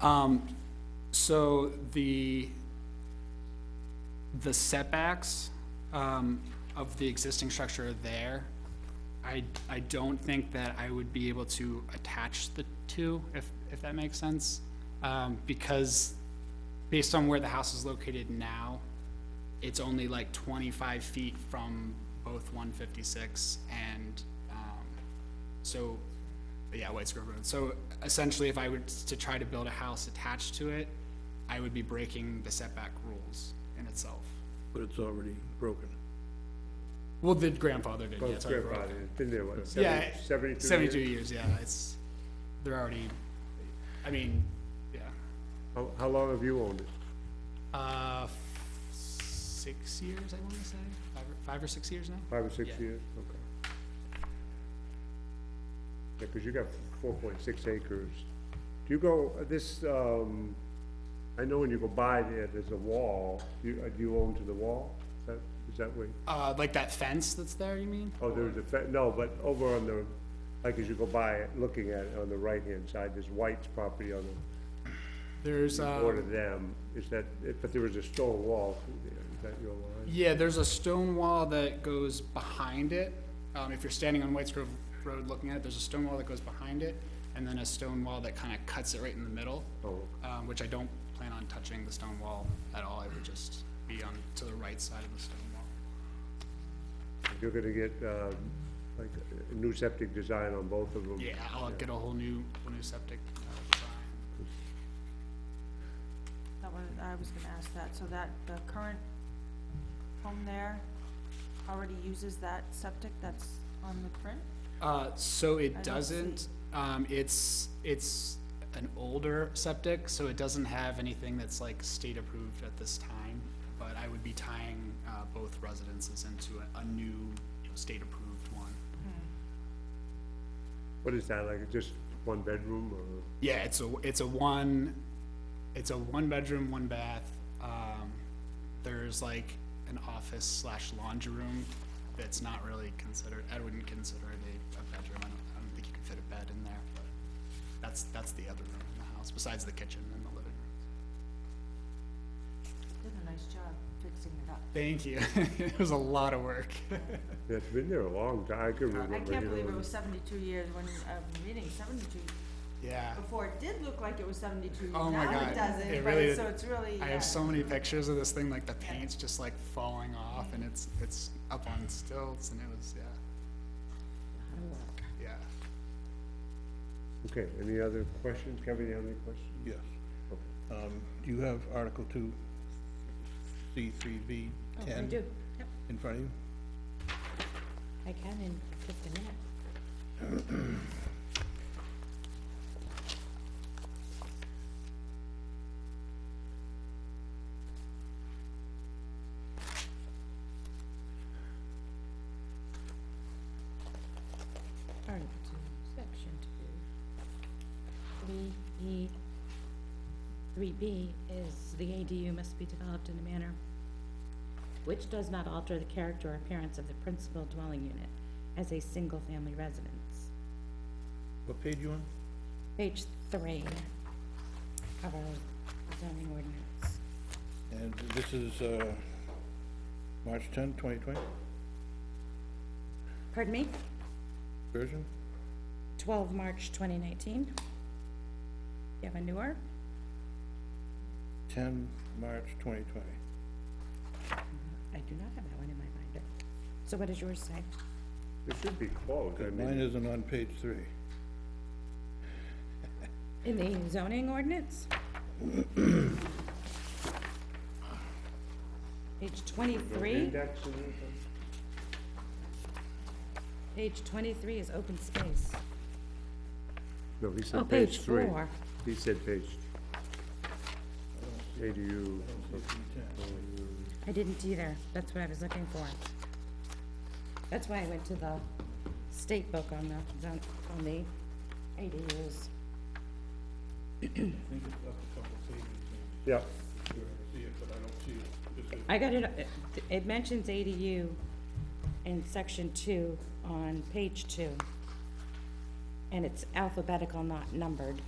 Um, so the, the setbacks, um, of the existing structure are there. I, I don't think that I would be able to attach the two, if, if that makes sense. Um, because based on where the house is located now, it's only like twenty-five feet from both one fifty-six and, um, so, yeah, White Grove Road. So essentially, if I were to try to build a house attached to it, I would be breaking the setback rules in itself. but it's already broken. Well, the grandfather did, yeah, Well, it's already broken. Oh, grandfathered, been there, what, Yeah, seventy, seventy-two years? seventy-two years, yeah, it's, they're already, I mean, yeah, How, how long have you owned it? uh, f- six years, I wanna say, five, or- five or six years now? Five or six Yeah. years? Okay. Yeah, cause you got four point six acres. Do you go, uh, this, um, I know when you go by there, there's a wall, you, uh, do you own to the wall? Is that, is that where? Uh, like that fence that's there, you mean? Oh, there's a, fe- no, but over on the, like as you go by, it, looking at it on the right-hand side, there's White's property on There's, the, uh, Um, border them, is that, but there was a stone wall through there, is that your line? yeah, there's a stone wall that goes behind it. Um, if you're standing on Whites Grove Road looking at it, there's a stone wall that goes behind it, and then a stone wall that kinda cuts it right in the middle. Oh, um, which I don't plan on touching the stone wall at all. It would just be on, to the right side of the stone wall. You're gonna get, um, like, a new septic design on both of them? Yeah, I'll get a whole new, whole new septic uh, design. That was, I was gonna ask that, so that the current home there already uses that septic that's on the print? Uh, so I it don't doesn't, see- um, it's, it's an older septic, so it doesn't have anything that's like state approved at this time. But I would be tying, uh, both residences into a, a new, you know, state approved one. What is that, like, just one bedroom, or, Yeah, it's a, it's a one, it's a one bedroom, one bath. Um, there's like an office slash laundry room that's not really considered, I wouldn't consider it a, a bedroom. I don't, I don't think you could fit a bed in there, but that's, that's the other room in the house, besides the kitchen and the living room. Did a nice job fixing it up. Thank you. It was a lot of work. it's been there a long time, I can remember. Uh, I can't you know, believe it was seventy-two years when, uh, meeting seventy-two, Yeah. before it did look like it was seventy-two, Oh my now God, it it doesn't, but, really- it's- so it's really, I yeah. have so many pictures of this thing, like the paint's just like falling off and it's, it's up on stilts and it was, yeah. Yeah. Okay, any other questions, Kevin, you have any questions? Yes. Um, do you have Article two, C three V Oh, I ten? do, yep, In front of you? I can in just a minute. Turn to section two. Three E, three B is the ADU must be developed in a manner which does not alter the character or appearance of the principal dwelling unit as a single-family residence. What page you on? Page three of our zoning ordinance. And this is, uh, March 10, 2020 Pardon me? version? Twelve March twenty nineteen. You have a newer? Ten, March twenty twenty. I do not have that one in my binder. So what does yours say? It should be closed, I Mine mean, isn't on page three. In the zoning ordinance? Page twenty-three, index and everything? page twenty-three is open space. No, he Oh, said page page three. four. He said page, ADU, I didn't either. That's what I was looking for. That's why I went to the state book on the, zon- on the ADUs. I think it's up a couple pages, yeah, I'm sure I see it, but I don't see it. This is- I got it, it- it mentions ADU in section two on page two. And it's alphabetical, not numbered.